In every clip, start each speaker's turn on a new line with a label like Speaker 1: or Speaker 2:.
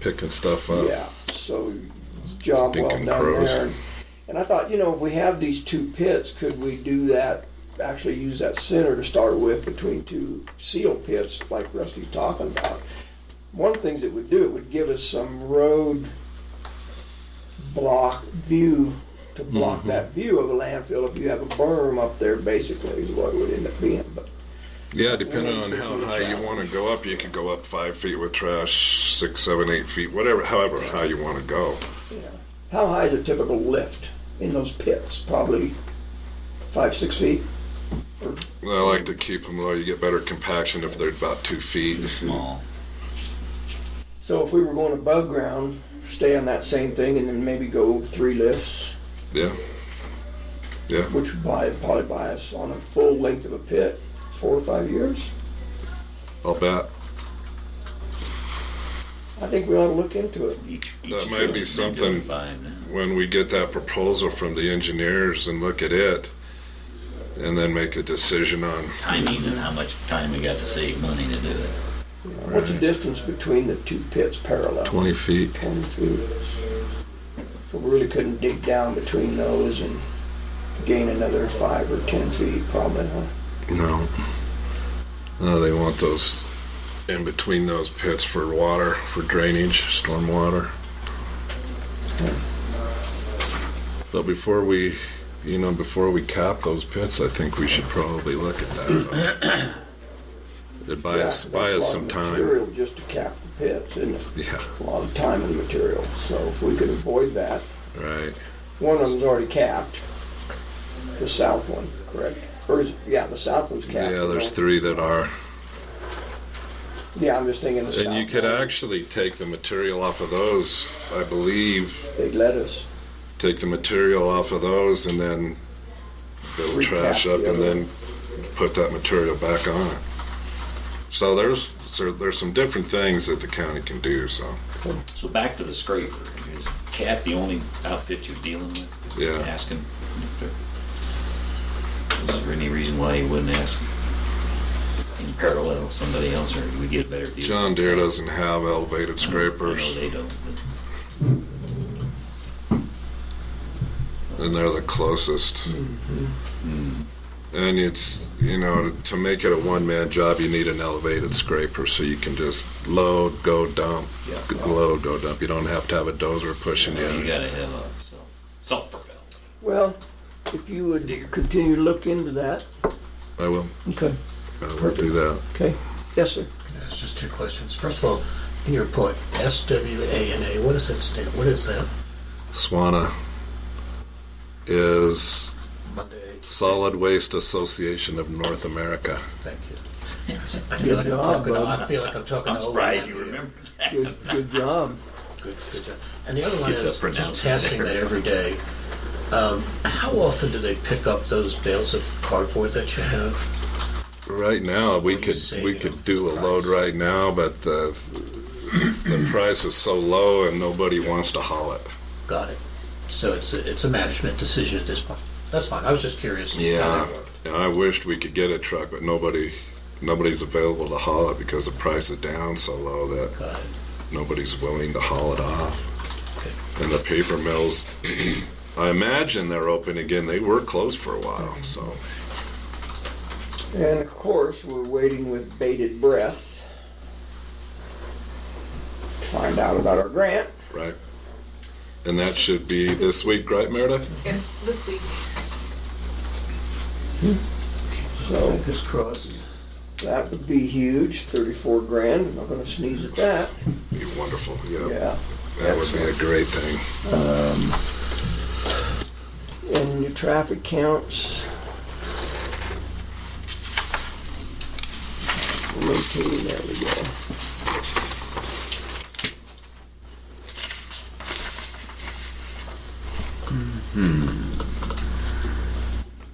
Speaker 1: picking stuff up.
Speaker 2: Yeah, so job well
Speaker 1: Stinking
Speaker 2: done
Speaker 1: crows.
Speaker 2: there. And I thought, you know, if we have these two pits, could we do that, actually use that center to start with between two seal pits like Rusty's talking about? One of the things it would do, it would give us some road block view to block
Speaker 1: Mm-hmm.
Speaker 2: that view of a landfill if you have a berm up there basically is what it would end up being, but
Speaker 1: Yeah, depending on how high you want to go up, you can go up five feet with trash, six, seven, eight feet, whatever, however high you want to go.
Speaker 2: how high is a typical lift in those pits? Probably five, six feet?
Speaker 1: And I like to keep them low. You get better compaction if they're about two feet.
Speaker 3: small.
Speaker 2: So if we were going above ground, stay on that same thing and then maybe go three lifts,
Speaker 1: Yeah. Yeah.
Speaker 2: which would buy, probably buy us on a full length of a pit, four or five years.
Speaker 1: I'll bet.
Speaker 2: I think we ought to look into it.
Speaker 3: Each, each
Speaker 1: That might be
Speaker 3: trail's been
Speaker 1: something-
Speaker 3: doing Fine.
Speaker 1: When we get that proposal from the engineers and look at it, and then make a decision on
Speaker 3: Timing and how much time we got to save money to do it.
Speaker 2: What's the distance between the two pits parallel?
Speaker 1: 20 feet.
Speaker 2: Twenty feet. So we really couldn't dig down between those and gain another five or ten feet probably, huh?
Speaker 1: No. No, they want those in between those pits for water, for drainage, storm water. But before we, you know, before we cap those pits, I think we should probably look at that. It'd buy us,
Speaker 2: Yeah,
Speaker 1: buy
Speaker 2: that's a lot
Speaker 1: us some
Speaker 2: of
Speaker 1: time.
Speaker 2: Material just to cap the pits, isn't it?
Speaker 1: Yeah,
Speaker 2: A lot of time and material, so if we could avoid that.
Speaker 1: right.
Speaker 2: One of them's already capped, the south one, correct? Or is, yeah, the south one's capped.
Speaker 1: Yeah, there's
Speaker 2: right?
Speaker 1: three that are.
Speaker 2: Yeah, I'm just thinking the south.
Speaker 1: And you could
Speaker 2: one,
Speaker 1: actually take the material off of those, I believe,
Speaker 2: They'd let us,
Speaker 1: take the material off of those and then build
Speaker 2: Recap
Speaker 1: trash up
Speaker 2: the
Speaker 1: and
Speaker 2: other.
Speaker 1: then put that material back on it. So there's so there's some different things that the county can do. So
Speaker 3: So back to the scraper. Is Cat the only outfit you're dealing with?
Speaker 1: Yeah.
Speaker 3: Ask him. if there- Is there any reason why you wouldn't ask in parallel somebody else, or we get a better deal?
Speaker 1: John Deere doesn't have elevated
Speaker 3: I know
Speaker 1: scrapers,
Speaker 3: Mm-hmm. they don't. But
Speaker 1: and they're the closest.
Speaker 3: Mm-hmm.
Speaker 1: And it's you know to, to make it a one man job, you need an elevated scraper so you can just load, go dump,
Speaker 3: Yeah.
Speaker 1: load, go dump. You don't have to have a dozer pushing
Speaker 3: you
Speaker 1: you.
Speaker 3: gotta have a self self propel.
Speaker 2: well, if you would continue to look into that.
Speaker 1: I will.
Speaker 2: Okay.
Speaker 1: I will do that.
Speaker 2: Okay, yes, sir.
Speaker 4: That's just two questions. First of all, in your report, SWANA, what does that stand? What is that?
Speaker 1: Swana is
Speaker 4: Monday.
Speaker 1: Solid Waste Association of North America.
Speaker 4: Thank you. I feel like I'm
Speaker 2: job,
Speaker 4: talking.
Speaker 2: bud.
Speaker 4: I feel like I'm talking.
Speaker 3: I'm
Speaker 4: to old
Speaker 3: surprised
Speaker 4: man
Speaker 3: you
Speaker 4: here.
Speaker 3: remember.
Speaker 2: Good, good job.
Speaker 4: Good, good job. And the other one
Speaker 3: It's a
Speaker 4: is just
Speaker 3: pronouncement
Speaker 4: passing that every day. Um, how often do they pick up those bales of cardboard that you have?
Speaker 1: Right now, we
Speaker 4: What do you
Speaker 1: could
Speaker 4: say
Speaker 1: we
Speaker 4: of
Speaker 1: could do a
Speaker 4: price?
Speaker 1: load right now, but the the price is so low and nobody wants to haul it.
Speaker 4: Got it. So it's a, it's a management decision at this point. That's fine. I was just curious. how
Speaker 1: Yeah,
Speaker 4: they work.
Speaker 1: and I wished we could get a truck, but nobody nobody's available to haul it because the price is down so low that
Speaker 4: Got it.
Speaker 1: nobody's willing to haul it off.
Speaker 4: Okay.
Speaker 1: And the paper mills, I imagine they're open again. They were closed for a while, so
Speaker 2: And of course, we're waiting with bated breath to find out about our grant.
Speaker 1: right. And that should be this week, right, Meredith?
Speaker 5: Yeah, this week.
Speaker 2: So-
Speaker 4: Fingers crossed.
Speaker 2: That would be huge, thirty-four grand, I'm not gonna sneeze at that,
Speaker 1: Be wonderful.
Speaker 2: yeah.
Speaker 1: That would be a great thing.
Speaker 2: And your traffic counts. Locating, there we go.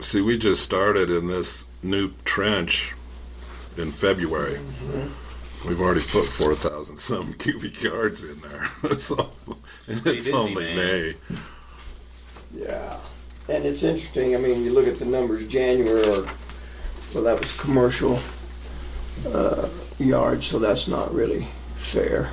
Speaker 1: See, we just started in this new trench in February. We've already put 4,000 some cubic yards in there. so, and it's
Speaker 3: busy,
Speaker 1: only
Speaker 3: man.
Speaker 1: May.
Speaker 2: Yeah, and it's interesting, I mean, you look at the numbers, January, or, well, that was commercial uh, yards, so that's not really fair.